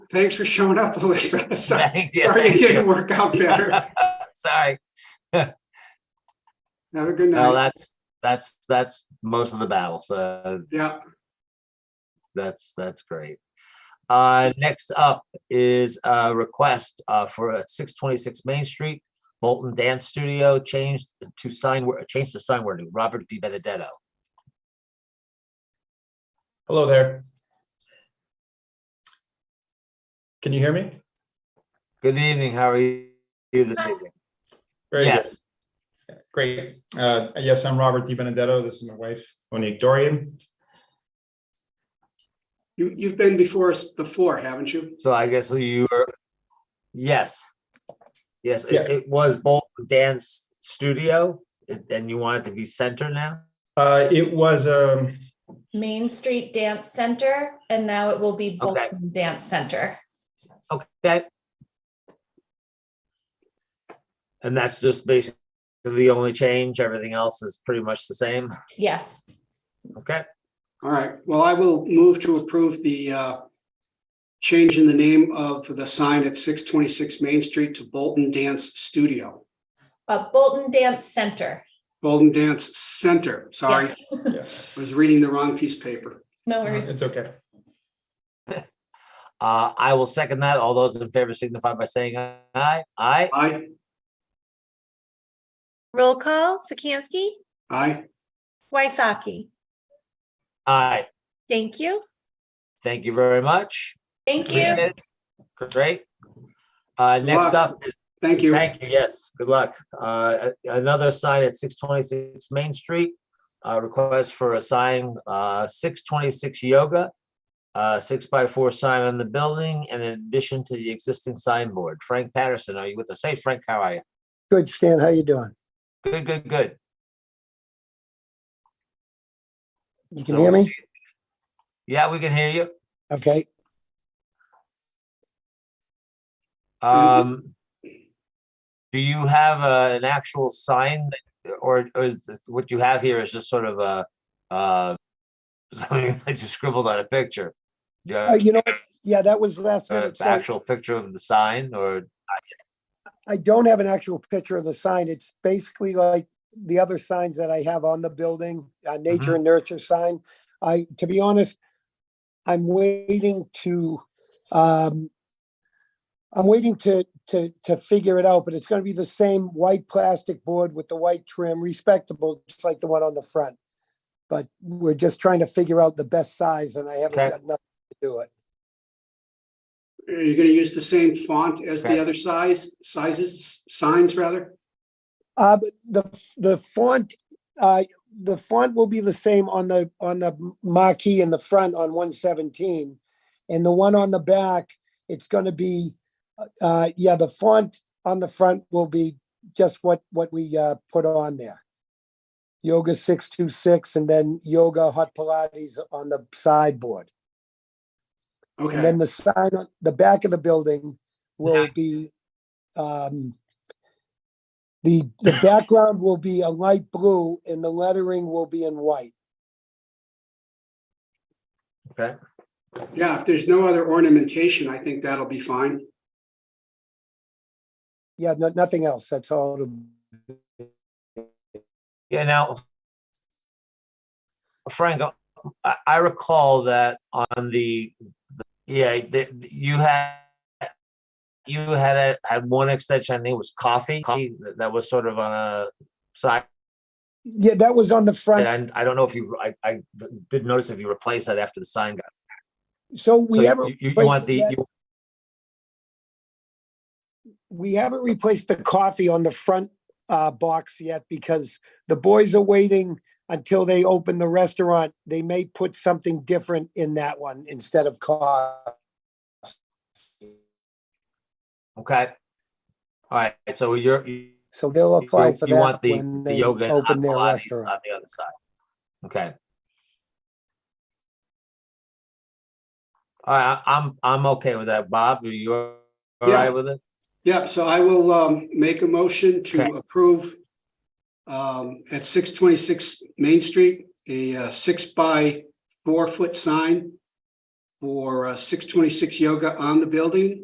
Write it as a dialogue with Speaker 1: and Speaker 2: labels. Speaker 1: Thanks for showing up, Alyssa. Sorry
Speaker 2: Thank you.
Speaker 1: sorry it
Speaker 2: Thank
Speaker 1: didn't
Speaker 2: you.
Speaker 1: work out better.
Speaker 2: Sorry.
Speaker 1: Have a good
Speaker 2: No,
Speaker 1: night.
Speaker 2: that's, that's, that's most of the battle. So
Speaker 1: Yeah,
Speaker 2: that's, that's great. Uh, next up is a request, uh, for six twenty-six Main Street, Bolton Dance Studio, changed to sign, wor- changed to sign wording, Robert Di Benedetto.
Speaker 3: Hello there. Can you hear me?
Speaker 2: Good evening. How are you this evening?
Speaker 3: Very good.
Speaker 2: Yes.
Speaker 3: Great. Uh, Yes, I'm Robert Di Benedetto. This is my wife, Monique Dorian.
Speaker 1: you, you've been before us before, haven't you?
Speaker 2: So I guess you were, yes. Yes, it,
Speaker 3: Yeah.
Speaker 2: it was Bolton Dance Studio and- and you want it to be center now?
Speaker 3: Uh, It was, um,
Speaker 4: Main Street Dance Center, and now it will be
Speaker 2: Okay.
Speaker 4: Bolton Dance Center.
Speaker 2: Okay. And that's just basically the only change. Everything else is pretty much the same.
Speaker 4: Yes.
Speaker 2: Okay,
Speaker 1: All right, well, I will move to approve the uh, change in the name of the sign at 626 Main Street to Bolton Dance Studio,
Speaker 4: Uh, Bolton Dance Center.
Speaker 1: Bolton Dance Center. Sorry,
Speaker 4: Yes.
Speaker 3: yes,
Speaker 1: I was reading the wrong piece of paper.
Speaker 4: No worries.
Speaker 3: it's okay.
Speaker 2: uh, I will second that. All those in favor signify by saying aye. Aye.
Speaker 1: Aye,
Speaker 5: Roll call, Sikansky,
Speaker 1: aye.
Speaker 5: Waisaki.
Speaker 2: Aye.
Speaker 5: Thank you.
Speaker 2: Thank you very much.
Speaker 4: Thank you.
Speaker 2: Appreciate it. Great. Uh, next
Speaker 1: luck.
Speaker 2: up,
Speaker 1: Thank you.
Speaker 2: thank you. Yes, good luck. Uh, another sign at six twenty-six Main Street. Uh, request for a sign, uh, six twenty-six yoga. Uh, six by four sign on the building in addition to the existing signboard. Frank Patterson, are you with us? Hey Frank, how are you?
Speaker 6: Good, Stan, how you doing?
Speaker 2: Good, good, good.
Speaker 6: You can
Speaker 2: So
Speaker 6: hear
Speaker 2: we'll
Speaker 6: me?
Speaker 2: see. Yeah, we can hear you.
Speaker 6: Okay,
Speaker 2: Um, do you have a, an actual sign that- or, or is th- what you have here is just sort of a, uh, something that you scribbled on a picture?
Speaker 6: Uh,
Speaker 2: Yeah,
Speaker 6: you know, what? yeah, that was last minute. so
Speaker 2: actual picture of the sign or,
Speaker 6: I don't have an actual picture of the sign. It's basically like the other signs that I have on the building, uh, nature and nurture sign. I, to be honest, I'm waiting to, um, I'm waiting to, to, to figure it out, but it's gonna be the same white plastic board with the white trim, respectable, just like the one on the front. But we're just trying to figure out the best size and I haven't
Speaker 2: Okay.
Speaker 6: got nothing to do it.
Speaker 1: Are you going to use the same font as
Speaker 2: Okay.
Speaker 1: the other size, sizes, signs rather?
Speaker 6: Uh, but the, f- the font, uh, the font will be the same on the, on the m- marquee in the front on one seventeen. And the one on the back, it's gonna be, uh, uh, yeah, the font on the front will be just what, what we, uh, put on there. Yoga six two six and then yoga hot Pilates on the sideboard. And
Speaker 1: Okay,
Speaker 6: then the sign on the back of the building will
Speaker 2: Yeah.
Speaker 6: be, um, the, the background will be a light blue and the lettering will be in white.
Speaker 2: okay?
Speaker 1: yeah, if there's no other ornamentation, I think that'll be fine.
Speaker 6: Yeah, no, nothing else. That's all. it'll-
Speaker 2: Yeah, now. Frank, uh, I, I recall that on the, the- yeah, the- you had, you had, a- had one extension, I think it was coffee, coffee that- that was sort of on a side.
Speaker 6: Yeah, that was on the front.
Speaker 2: And I don't know if you, I, I did notice if you replaced that after the sign got.
Speaker 6: So we
Speaker 2: so
Speaker 6: haven't,
Speaker 2: you- You you
Speaker 6: replaced
Speaker 2: want
Speaker 6: it
Speaker 2: the,
Speaker 6: yet.
Speaker 2: you-
Speaker 6: we haven't replaced the coffee on the front, uh, box yet because the boys are waiting until they open the restaurant. They may put something different in that one instead of coffee.
Speaker 2: okay. All right, so you're, you
Speaker 6: So they'll
Speaker 2: you-
Speaker 6: apply for
Speaker 2: you
Speaker 6: that
Speaker 2: want the
Speaker 6: when
Speaker 2: the
Speaker 6: they
Speaker 2: yoga and
Speaker 6: open their
Speaker 2: Pilates uh,
Speaker 6: restaurant.
Speaker 2: On the other side. Okay. All right, I- I'm, I'm okay with that. Bob, are you all
Speaker 1: Yeah.
Speaker 2: right with it?
Speaker 1: Yep, so I will um make a motion to
Speaker 2: Okay.
Speaker 1: approve um at six twenty-six Main Street, a uh, six by four foot sign for six twenty-six yoga on the building